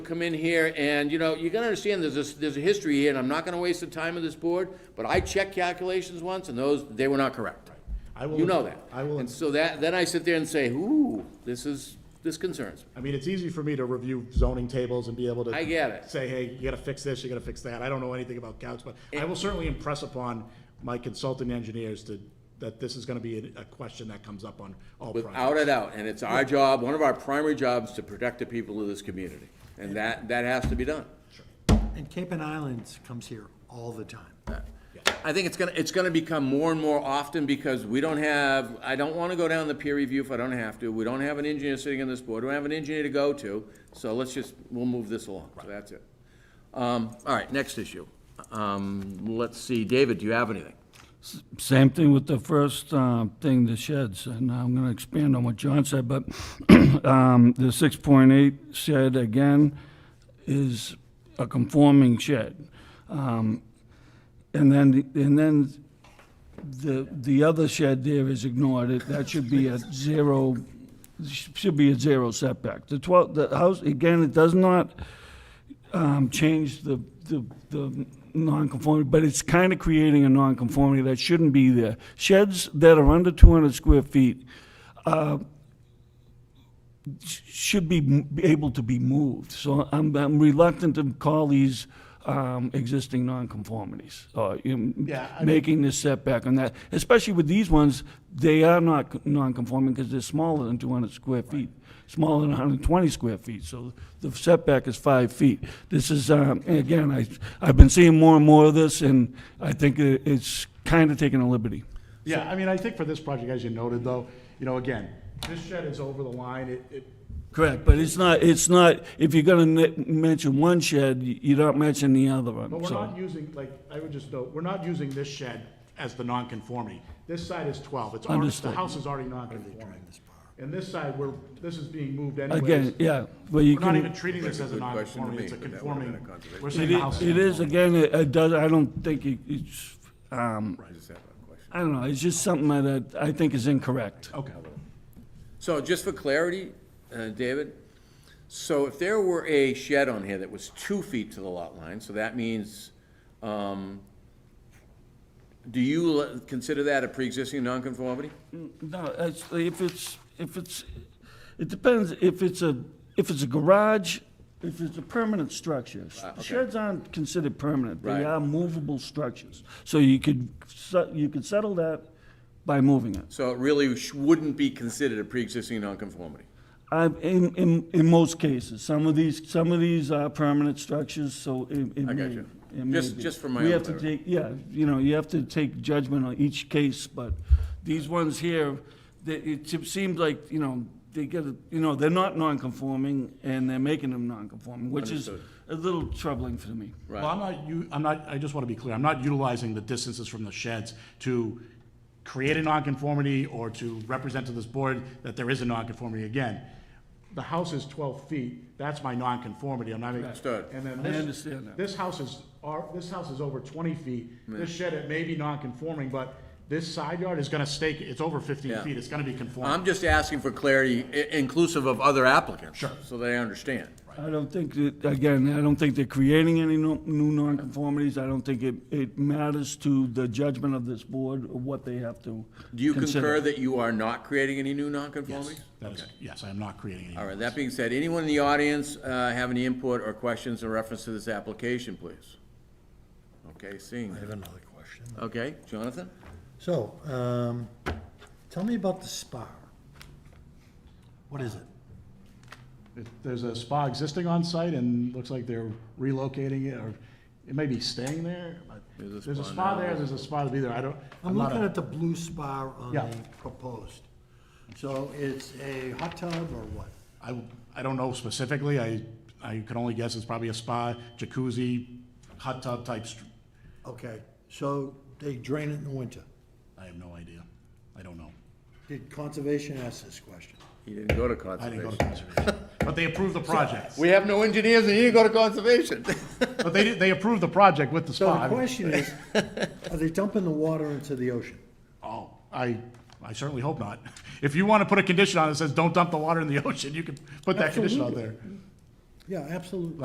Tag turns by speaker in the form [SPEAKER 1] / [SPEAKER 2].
[SPEAKER 1] come in here and, you know, you gotta understand, there's this, there's a history here, and I'm not gonna waste the time of this board, but I checked calculations once, and those, they were not correct.
[SPEAKER 2] I will-
[SPEAKER 1] You know that.
[SPEAKER 2] I will-
[SPEAKER 1] And so that, then I sit there and say, ooh, this is, this concerns me.
[SPEAKER 2] I mean, it's easy for me to review zoning tables and be able to.
[SPEAKER 1] I get it.
[SPEAKER 2] Say, hey, you gotta fix this, you gotta fix that. I don't know anything about couch, but I will certainly impress upon my consulting engineers to, that this is gonna be a, a question that comes up on all projects.
[SPEAKER 1] Without a doubt, and it's our job, one of our primary jobs, to protect the people of this community, and that, that has to be done.
[SPEAKER 3] And Cape and Islands comes here all the time.
[SPEAKER 1] I think it's gonna, it's gonna become more and more often because we don't have, I don't wanna go down the peer review if I don't have to. We don't have an engineer sitting in this board, we don't have an engineer to go to, so let's just, we'll move this along, so that's it. Um, all right, next issue. Um, let's see, David, do you have anything?
[SPEAKER 4] Same thing with the first uh, thing, the sheds, and I'm going to expand on what John said, but um, the 6.8 shed, again, is a conforming shed. Um, And then, and then the, the other shed there is ignored, It- that should be a zero, should be a zero setback. The 12, the house, again, it does not, um, change the, the, the non-conformity, but it's kind of creating a non-conformity that shouldn't be there. Sheds that are under two hundred square feet, uh, sh- should be m- be able to be moved. So I'm, I'm reluctant to call these, um, existing non-conformities, or, you
[SPEAKER 2] Yeah,
[SPEAKER 4] know,
[SPEAKER 2] I mean-
[SPEAKER 4] making this setback on that. Especially with these ones, they are not c- non-conforming because they're smaller than two hundred square feet, smaller than hundred and twenty square feet, so the setback is five feet. This is, um, and again, I, I've been seeing more and more of this, and I think i- it's kind of taking a liberty.
[SPEAKER 2] Yeah, I mean, I think for this project, as you noted though, you know, again, this shed is over the line, it, it,
[SPEAKER 4] Correct, but it's not, it's not, if you're gonna ne- mention one shed, y- you don't mention the other
[SPEAKER 2] But
[SPEAKER 4] one,
[SPEAKER 2] we're not
[SPEAKER 4] so.
[SPEAKER 2] using, like, I would just note, we're not using this shed as the non-conformity. This side is twelve, it's already, the
[SPEAKER 4] Understood.
[SPEAKER 2] house is already non-conforming. And this side, we're, this is being moved anyways.
[SPEAKER 4] Again, yeah, well, you
[SPEAKER 2] We're not even
[SPEAKER 4] can,
[SPEAKER 2] treating this as
[SPEAKER 1] That's
[SPEAKER 2] a
[SPEAKER 1] a good question to
[SPEAKER 2] non-conforming, it's a
[SPEAKER 1] me, but that would've
[SPEAKER 2] conforming,
[SPEAKER 1] been a conservation.
[SPEAKER 2] we're
[SPEAKER 4] it
[SPEAKER 2] saying the house.
[SPEAKER 4] is, it is, again, it it does, I don't think it- it's, um, I don't know, it's just something that I think is incorrect.
[SPEAKER 2] Okay.
[SPEAKER 1] So just for clarity, uh, David, so if there were a shed on here that was two feet to the lot line, so that means, um, do you le- consider that a pre-existing nonconformity?
[SPEAKER 2] Um,
[SPEAKER 4] No, actually, if it's, if it's, it depends, if it's a, if it's a garage, if it's a permanent structure.
[SPEAKER 2] Ah,
[SPEAKER 1] okay.
[SPEAKER 4] Sheds aren't considered permanent,
[SPEAKER 1] Right.
[SPEAKER 4] they are movable structures. So you could, se- you could settle that by moving it.
[SPEAKER 1] So it really sh- wouldn't be considered a pre-existing nonconformity.
[SPEAKER 4] I, Uh, in, in, in most cases, some of these, some of these are permanent structures, so it, it
[SPEAKER 1] I
[SPEAKER 4] may.
[SPEAKER 1] got you.
[SPEAKER 4] it may
[SPEAKER 1] Just-
[SPEAKER 4] be.
[SPEAKER 1] just for my
[SPEAKER 4] We
[SPEAKER 1] own
[SPEAKER 4] have to take, yeah, you know, you have to take judgment on each case, but these ones here, they, it se- seems like, you know, they get, a- you know, they're not non-conforming and they're making them non-conforming, which is
[SPEAKER 1] Understood.
[SPEAKER 4] a little troubling for me.
[SPEAKER 2] Well, I'm not, you, I'm not, I just want to be clear, I'm not utilizing the distances from the sheds to create a nonconformity or to represent to this board that there is a nonconformity again. The house is twelve feet, that's my nonconformity, I'm not.
[SPEAKER 1] Understood.
[SPEAKER 2] And then
[SPEAKER 4] I
[SPEAKER 2] this-
[SPEAKER 4] understand that.
[SPEAKER 2] This house is, our, this house is over twenty feet, this shed, it may be nonconforming, but this side yard is gonna stake, it's over fifteen
[SPEAKER 1] Yeah.
[SPEAKER 2] feet, it's gonna be conforming.
[SPEAKER 1] I'm just asking for clarity, i- inclusive of other applicants.
[SPEAKER 2] Sure.
[SPEAKER 1] So they understand.
[SPEAKER 4] I don't think that, again, I don't think they're creating any no- new nonconformities. I don't think it, it matters to the judgment of this board or what they have to
[SPEAKER 1] Do you
[SPEAKER 4] consider.
[SPEAKER 1] concur that you are not creating any new nonconformities?
[SPEAKER 2] That is, yes, I am not creating any.
[SPEAKER 1] All right, that being said, anyone in the audience uh, have any input or questions in reference to this application, please? Okay, seeing,
[SPEAKER 5] I have another question.
[SPEAKER 1] okay, Jonathan?
[SPEAKER 5] So, um, tell me about the spa. What is it?
[SPEAKER 2] It- There's a spa existing on site and looks like they're relocating it or it may be staying there, but
[SPEAKER 1] There's a
[SPEAKER 2] there's a
[SPEAKER 1] spa
[SPEAKER 2] spa
[SPEAKER 1] now.
[SPEAKER 2] there, there's a spa to be there. I don't,
[SPEAKER 5] I'm
[SPEAKER 2] I'm not
[SPEAKER 5] looking
[SPEAKER 2] a,
[SPEAKER 5] at the blue spa on
[SPEAKER 2] Yeah.
[SPEAKER 5] the proposed. So it's a hot tub or what?
[SPEAKER 2] I, I don't know specifically. I, I can only guess it's probably a spa, jacuzzi, hot tub type. str-
[SPEAKER 5] Okay, so they drain it in the winter.
[SPEAKER 2] I have no idea. I don't know.
[SPEAKER 5] Did conservation ask this question?
[SPEAKER 1] He didn't go to
[SPEAKER 2] I didn't go to
[SPEAKER 1] conservation.
[SPEAKER 2] conservation. But they approved the project.
[SPEAKER 1] We have no engineers and you didn't go to conservation.
[SPEAKER 2] But they, did- they approved the project with the
[SPEAKER 5] So the
[SPEAKER 2] spa.
[SPEAKER 5] question is, are they dumping the water into the ocean?
[SPEAKER 2] Oh, I, I certainly hope not. If you want to put a condition on it that says, don't dump the water in the ocean, you can put that condition on there.
[SPEAKER 5] Yeah, absolutely.